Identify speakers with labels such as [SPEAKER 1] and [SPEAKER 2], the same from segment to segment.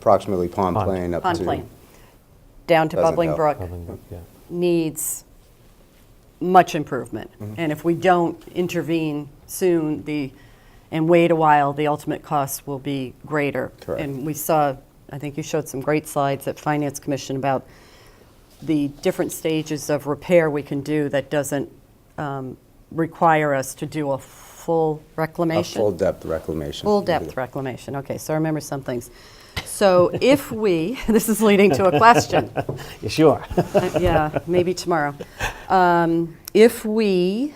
[SPEAKER 1] approximately Pond
[SPEAKER 2] Pond.
[SPEAKER 1] Plain up to.
[SPEAKER 3] Pond Plain, down to
[SPEAKER 1] Doesn't
[SPEAKER 3] Bubbling
[SPEAKER 1] help.
[SPEAKER 3] Brook,
[SPEAKER 2] Bubbling Brook, yeah.
[SPEAKER 3] needs much improvement.
[SPEAKER 1] Mm-hmm.
[SPEAKER 3] And if we don't intervene soon, the, and wait a while, the ultimate cost will be greater.
[SPEAKER 1] Correct.
[SPEAKER 3] And we saw, I think you showed some great slides at Finance Commission about the different stages of repair we can do that doesn't um, require us to do a full
[SPEAKER 1] A
[SPEAKER 3] reclamation.
[SPEAKER 1] full depth reclamation.
[SPEAKER 3] Full depth reclamation, okay, so I remember some things. So if we, this is leading to a question,
[SPEAKER 2] Yeah, Sure.
[SPEAKER 3] Uh, yeah, maybe tomorrow. Um, If we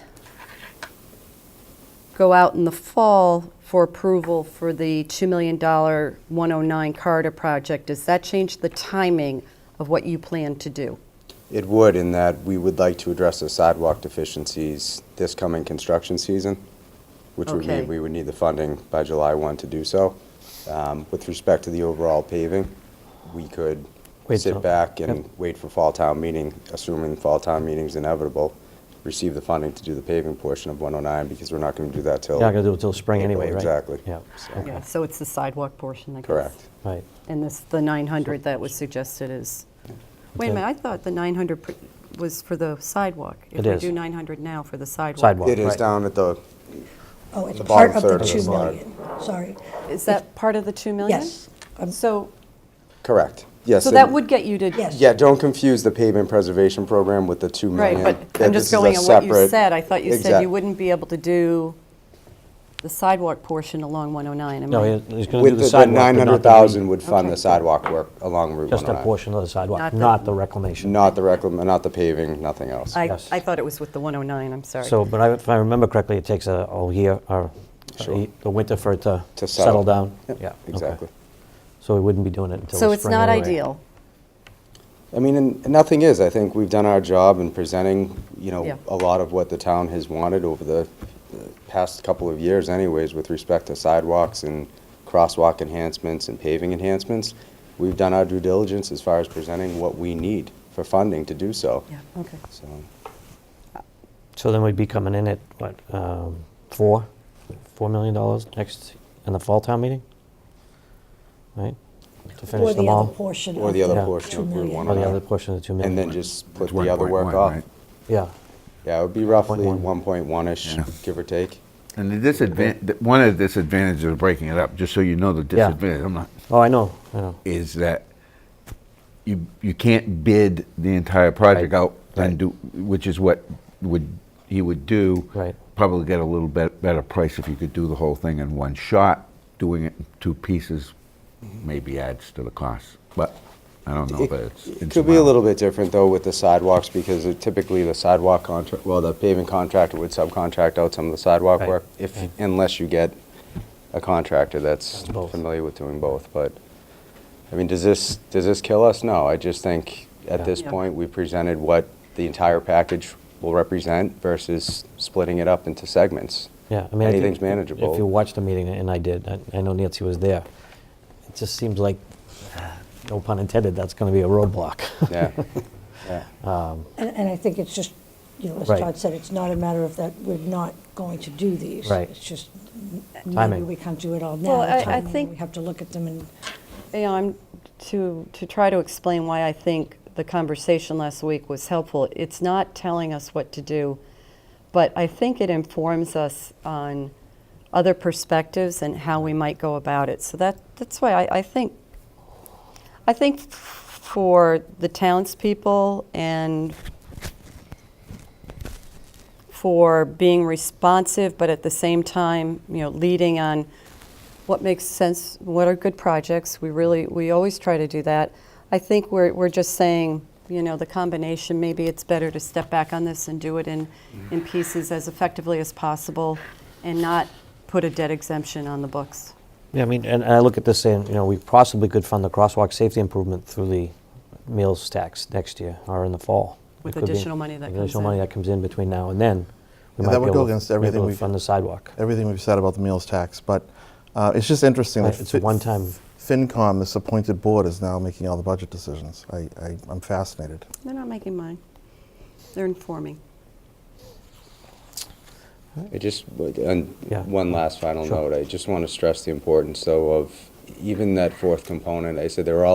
[SPEAKER 3] go out in the fall for approval for the $2 million 109 corridor project, does that change the timing of what you plan to do?
[SPEAKER 1] It would in that we would like to address the sidewalk deficiencies this coming construction season, which would
[SPEAKER 3] Okay.
[SPEAKER 1] mean we would need the funding by July 1 to do so. Um, With respect to the overall paving, we could
[SPEAKER 2] Wait till-
[SPEAKER 1] sit back and wait for fall town meeting, assuming fall town meeting's inevitable, receive the funding to do the paving portion of 109 because we're not going to do that till.
[SPEAKER 2] You're not going to do it till spring
[SPEAKER 1] April,
[SPEAKER 2] anyway, right?
[SPEAKER 1] exactly.
[SPEAKER 2] Yeah,
[SPEAKER 1] So-
[SPEAKER 2] okay,
[SPEAKER 3] Yeah, So it's the sidewalk portion, I guess?
[SPEAKER 1] Correct.
[SPEAKER 2] right.
[SPEAKER 3] And this, the 900 that was suggested is, wait a
[SPEAKER 2] Okay.
[SPEAKER 3] minute, I thought the 900 pr- was for the sidewalk.
[SPEAKER 2] It
[SPEAKER 3] If
[SPEAKER 2] is.
[SPEAKER 3] we do 900 now for the sidewalk.
[SPEAKER 2] Sidewalk.
[SPEAKER 1] It is
[SPEAKER 2] Right.
[SPEAKER 1] down at the,
[SPEAKER 4] Oh, it's
[SPEAKER 1] The
[SPEAKER 4] part
[SPEAKER 1] bottom
[SPEAKER 4] of the
[SPEAKER 1] third of the
[SPEAKER 4] 2
[SPEAKER 1] slide.
[SPEAKER 4] million, sorry.
[SPEAKER 3] Is that part of the 2 million?
[SPEAKER 4] Yes. Um,
[SPEAKER 3] So,
[SPEAKER 1] correct. Yes.
[SPEAKER 3] so that
[SPEAKER 1] and-
[SPEAKER 3] would get you to.
[SPEAKER 4] Yes.
[SPEAKER 1] Yeah, don't confuse the pavement preservation program with the 2
[SPEAKER 3] Right,
[SPEAKER 1] million.
[SPEAKER 3] but
[SPEAKER 1] That
[SPEAKER 3] I'm
[SPEAKER 1] this is
[SPEAKER 3] just
[SPEAKER 1] a
[SPEAKER 3] going on what you
[SPEAKER 1] separate-
[SPEAKER 3] said. I thought you said
[SPEAKER 1] Exact-
[SPEAKER 3] you wouldn't be able to do the sidewalk portion along 109. Am
[SPEAKER 2] No,
[SPEAKER 3] I-
[SPEAKER 2] he- he's going to do
[SPEAKER 1] With
[SPEAKER 2] the
[SPEAKER 1] the-
[SPEAKER 2] sidewalk.
[SPEAKER 1] the
[SPEAKER 2] but not the
[SPEAKER 1] 900,000 would
[SPEAKER 3] Okay.
[SPEAKER 1] fund the sidewalk work along Route
[SPEAKER 2] re- Just a
[SPEAKER 1] 109.
[SPEAKER 2] portion of the sidewalk,
[SPEAKER 3] Not the-
[SPEAKER 2] not the reclamation.
[SPEAKER 1] Not the reclam, not the paving, nothing else.
[SPEAKER 3] I,
[SPEAKER 2] Yes.
[SPEAKER 3] I thought it was with the 109, I'm sorry.
[SPEAKER 2] So, but I- if I remember correctly, it takes a whole year or a
[SPEAKER 1] Sure.
[SPEAKER 2] ye- the winter for it to
[SPEAKER 1] To settle.
[SPEAKER 2] settle down? Yeah, okay.
[SPEAKER 1] Exactly.
[SPEAKER 2] So we wouldn't be doing it until
[SPEAKER 3] So
[SPEAKER 2] the
[SPEAKER 3] it's
[SPEAKER 2] spring
[SPEAKER 3] not
[SPEAKER 2] anyway.
[SPEAKER 3] ideal.
[SPEAKER 1] I mean, and nothing is. I think we've done our job in presenting, you
[SPEAKER 3] Yeah.
[SPEAKER 1] know, a lot of what the town has wanted over the uh, past couple of years anyways with respect to sidewalks and crosswalk enhancements and paving enhancements. We've done our due diligence as far as presenting what we need for funding to do so.
[SPEAKER 3] Yeah, okay.
[SPEAKER 1] So,
[SPEAKER 2] So then we'd be coming in at, what, um, four, $4 million dollars next, in the fall town meeting? Right? To
[SPEAKER 4] Or
[SPEAKER 2] finish
[SPEAKER 4] the
[SPEAKER 2] them
[SPEAKER 4] other
[SPEAKER 2] all?
[SPEAKER 4] portion.
[SPEAKER 1] Or
[SPEAKER 4] of
[SPEAKER 1] the
[SPEAKER 2] Yeah.
[SPEAKER 1] other portion of
[SPEAKER 4] Two
[SPEAKER 1] Route
[SPEAKER 2] Or
[SPEAKER 4] million.
[SPEAKER 2] the
[SPEAKER 1] 109.
[SPEAKER 2] other portion of the 2 million?
[SPEAKER 1] And then just put
[SPEAKER 5] It's
[SPEAKER 1] the other
[SPEAKER 5] 1.1,
[SPEAKER 1] work off.
[SPEAKER 5] right?
[SPEAKER 2] Yeah.
[SPEAKER 1] Yeah, it would be roughly
[SPEAKER 2] 1.1.
[SPEAKER 1] 1.1-ish, give or take.
[SPEAKER 5] And the disadvantage, one of the disadvantages of breaking it up, just so you know the
[SPEAKER 2] Yeah.
[SPEAKER 5] disadvantage, I'm not,
[SPEAKER 2] Oh, I know, I know.
[SPEAKER 5] is that you, you can't bid the entire project
[SPEAKER 2] Right.
[SPEAKER 5] out
[SPEAKER 2] Right.
[SPEAKER 5] and do, which is what would, he would do.
[SPEAKER 2] Right.
[SPEAKER 5] Probably get a little bit better price if you could do the whole thing in one shot. Doing it in two pieces maybe adds to the cost, but I don't know,
[SPEAKER 1] It-
[SPEAKER 5] but it's.
[SPEAKER 1] It could be a little bit different, though, with the sidewalks, because it- typically the sidewalk contract, well, the paving contractor would subcontract out some of the sidewalk
[SPEAKER 2] Right,
[SPEAKER 1] work, if,
[SPEAKER 2] right.
[SPEAKER 1] unless you get a contractor that's
[SPEAKER 2] That's both.
[SPEAKER 1] familiar with doing both, but, I mean, does this, does this kill us? No, I just think,
[SPEAKER 2] Yeah.
[SPEAKER 1] at this
[SPEAKER 3] Yeah.
[SPEAKER 1] point, we presented what the entire package will represent versus splitting it up into segments.
[SPEAKER 2] Yeah, I mean, I think
[SPEAKER 1] Anything's manageable.
[SPEAKER 2] If you watched the meeting, and I did, I, I know Nancy was there. It just seems like, no pun intended, that's going to be a roadblock.
[SPEAKER 1] Yeah, yeah.
[SPEAKER 4] And and I think it's just, you know, as
[SPEAKER 2] Right.
[SPEAKER 4] Todd said, it's not a matter of that we're not going to do these.
[SPEAKER 2] Right.
[SPEAKER 4] It's just, maybe
[SPEAKER 2] Timing.
[SPEAKER 4] we can't do it all now.
[SPEAKER 3] Well, I- I
[SPEAKER 4] timing, and
[SPEAKER 3] think-
[SPEAKER 4] We have to look at them and,
[SPEAKER 3] Yeah, I'm, to, to try to explain why I think the conversation last week was helpful, it's not telling us what to do, but I think it informs us on other perspectives and how we might go about it. So that, that's why I, I think, I think f- for the townspeople and for being responsive, but at the same time, you know, leading on what makes sense, what are good projects. We really, we always try to do that. I think we're, we're just saying, you know, the combination, maybe it's better to step back on this and do it in, in pieces as effectively as possible and not put a debt exemption on the books.
[SPEAKER 2] Yeah, I mean, and and I look at this saying, you know, we possibly could fund the crosswalk safety improvement through the meals tax next year or in the fall.
[SPEAKER 3] With
[SPEAKER 2] It could be
[SPEAKER 3] additional money that comes
[SPEAKER 2] Additional
[SPEAKER 3] in.
[SPEAKER 2] money that comes in between now and then. we
[SPEAKER 6] Yeah,
[SPEAKER 2] might
[SPEAKER 6] that
[SPEAKER 2] be
[SPEAKER 6] would
[SPEAKER 2] able
[SPEAKER 6] go
[SPEAKER 2] to-
[SPEAKER 6] against
[SPEAKER 2] be able
[SPEAKER 6] everything
[SPEAKER 2] to
[SPEAKER 6] we've-
[SPEAKER 2] Fund the sidewalk.
[SPEAKER 6] everything we've said about the meals tax, but uh, it's just interesting.
[SPEAKER 2] Right,
[SPEAKER 6] that
[SPEAKER 2] it's
[SPEAKER 6] Fi-
[SPEAKER 2] one time.
[SPEAKER 6] FinCom, this appointed board, is now making all the budget decisions. I, I, I'm fascinated.
[SPEAKER 3] They're not making mine. They're informing.
[SPEAKER 1] I just, and
[SPEAKER 2] Yeah.
[SPEAKER 1] one last final
[SPEAKER 2] Sure.
[SPEAKER 1] note, I just want to stress the importance, though, of even that fourth component, I said they were all